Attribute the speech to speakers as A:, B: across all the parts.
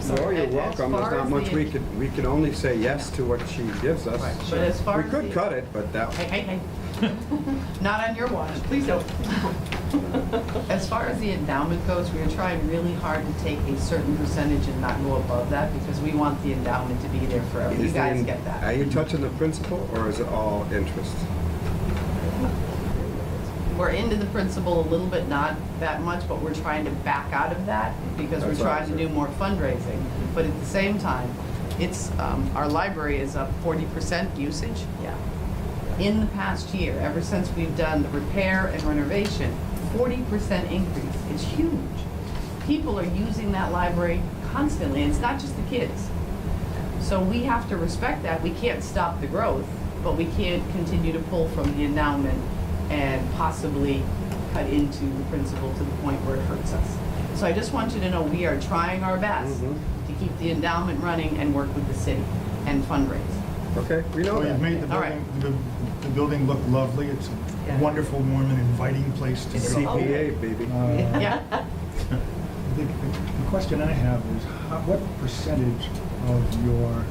A: sort
B: No,
A: of.
B: you're
A: as
B: welcome. There's
A: far
B: not
A: as
B: much
A: the-
B: we could, we can only say yes to what she gives us.
A: Right, but as far
B: We
A: as
B: could
A: the-
B: cut it, but that,
A: Hey, hey, hey. Not on your watch, please don't. As far as the endowment goes, we are trying really hard to take a certain percentage and not go above that because we want the endowment to be there forever. You
B: is the-
A: guys get
B: Are
A: that?
B: you touching the principal or is it all interest?
A: We're into the principal a little bit, not that much, but we're trying to back out of that because we're
B: That's what I
A: trying to
B: said.
A: do more fundraising. But at the same time, it's, um, our library is up forty percent usage. Yeah. in the past year, ever since we've done the repair and renovation, forty percent increase. It's huge. People are using that library constantly, and it's not just the kids. So we have to respect that. We can't stop the growth, but we can't continue to pull from the endowment and possibly cut into the principal to the point where it hurts us. So I just want you to know, we are trying our best
B: Mhm.
C: Mm-hmm.
A: to keep the endowment running and work with the city and fundraise.
B: Okay, we know
D: Well,
B: that.
D: you've made the
A: All right.
D: building, the- the building look lovely. It's a
A: Yeah.
D: wonderful, warm, and inviting place to
A: It's
D: go.
A: all-
B: CPA, baby.
D: Uh,
A: Yeah.
D: The the question I have is, how- what percentage of your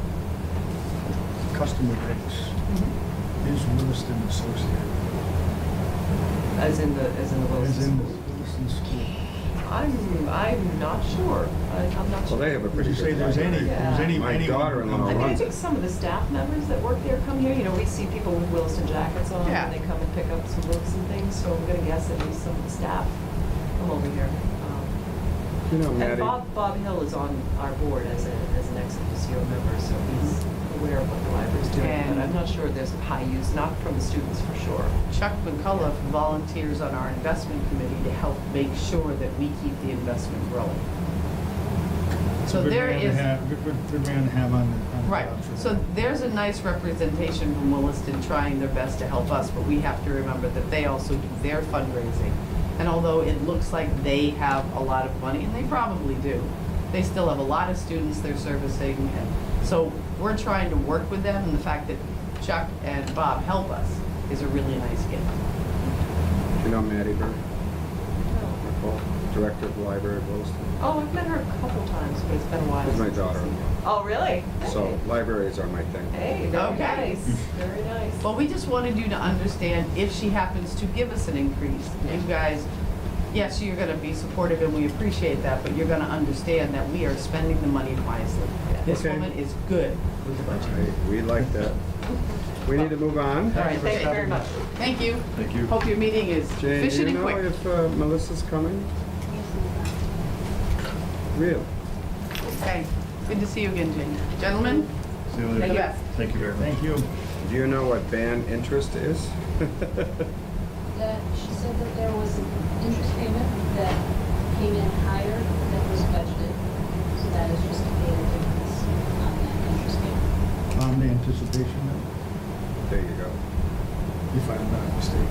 D: customer base
A: Mm-hmm.
D: is Williston Associated?
C: As in the, as in the
D: As
C: Williston
D: in
C: School?
D: Williston School?
C: I'm, I'm not sure. I- I'm not
B: Well,
C: sure.
B: they have a
D: Would
B: pretty
D: you say
B: good
D: there's any,
B: library.
D: there's any?
B: My
D: anyone who
B: daughter-in-law
D: comes
C: I mean, I
B: runs
C: think some of the staff members that work there come here, you know, we see people with Williston jackets on,
A: Yeah.
C: and they come and pick up some books and things, so I'm gonna guess at least some of the staff come over here. Um,
B: You know,
C: And
B: Maddie.
C: Bob, Bob Hill is on our board as a, as an ex officio member, so he's aware of what the library's doing, but
A: Mm-hmm. And-
C: I'm not sure there's high use, not from the students for sure.
A: Chuck McCullough volunteers on our investment committee to help make sure that we keep the investment growing.
D: It's a
A: So
D: good
A: there
D: man to
A: is,
D: have- Good good- good man to have on the. on the
A: right,
D: job for
A: so
D: that.
A: there's a nice representation from Williston trying their best to help us, but we have to remember that they also do their fundraising. And although it looks like they have a lot of money, and they probably do, they still have a lot of students they're servicing. and So we're trying to work with them, and the fact that Chuck and Bob help us is a really nice gift.
B: You know Maddie Bird, Nicole, Director of the Library of Williston.
C: Oh, I've met her a couple times, but it's been a while.
B: She's my
C: since I've seen
B: daughter-in-law.
C: her. Oh, really?
B: So libraries are my thing.
C: Hey, very
A: Okay.
C: nice, very nice.
A: Well, we just wanted you to understand if she happens to give us an increase, you guys, yes, you're gonna be supportive and we appreciate that, but you're gonna understand that we are spending the money wisely. This
B: Okay.
A: woman is good with the budget.
B: Right, We like that. We need to move on.
A: All right,
C: Thank you very much.
A: Thank you.
E: Thank you.
A: Hope your meeting is
B: Jane, do
A: efficient
B: you
A: and
B: know
A: quick.
B: if uh, Melissa's coming? Real?
A: Okay, good to see you again, Jane. Gentlemen,
E: See you
A: Thank you.
E: later. Thank you very much.
D: Thank you.
B: Do you know what band interest is?
F: that she said that there was an interest payment that came in higher than was budgeted. So that is just a data difference on that interest payment.
D: On Um, the anticipation,
B: There you go.
D: if I'm not mistaken.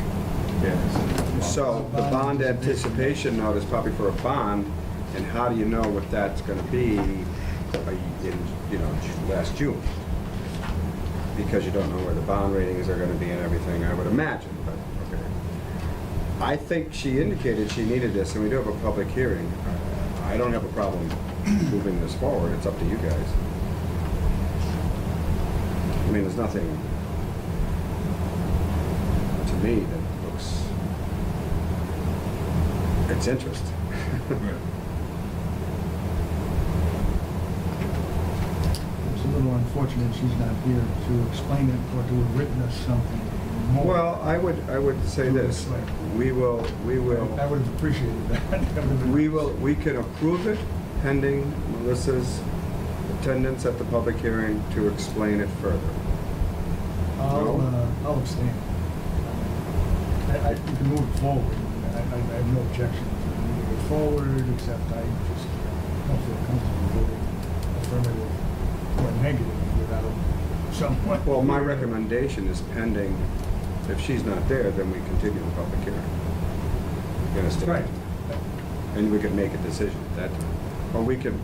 E: Yes.
B: So the bond anticipation note is probably for a bond, and how do you know what that's gonna be uh, in, you know, Ju- last June? Because you don't know where the bond ratings are gonna be and everything, I would imagine, but, okay. I think she indicated she needed this, and we do have a public hearing. I don't have a problem moving this forward, it's up to you guys. I mean, there's nothing, to me, that looks, it's interest.
D: It's a little unfortunate she's not here to explain it or to witness something more.
B: Well, I would, I would say this, we will, we
D: I
B: will,
D: would have appreciated that. That would have been-
B: we will, we can approve it pending Melissa's attendance at the public hearing to explain it further.
D: I'll,
B: No.
D: uh, I'll abstain. I, I, you can move it forward. I, I I have no objection to moving it forward, except I just don't feel comfortable voting affirmative or negative without someone.
B: Well, my recommendation is pending, if she's not there, then we continue the public hearing. You understand?
D: Right.
B: And we could make a decision at that time. Or we could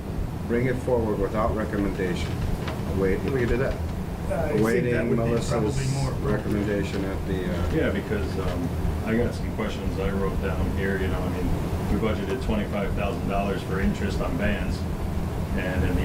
B: bring it forward without recommendation. Wait, we could do that.
D: I think that
B: Awaiting
D: would be probably
B: Melissa's
D: more appropriate.
B: recommendation at the, uh,
E: Yeah, because um, I got some questions I wrote down here, you know, I mean, we budgeted twenty-five thousand dollars for interest on bands, and in the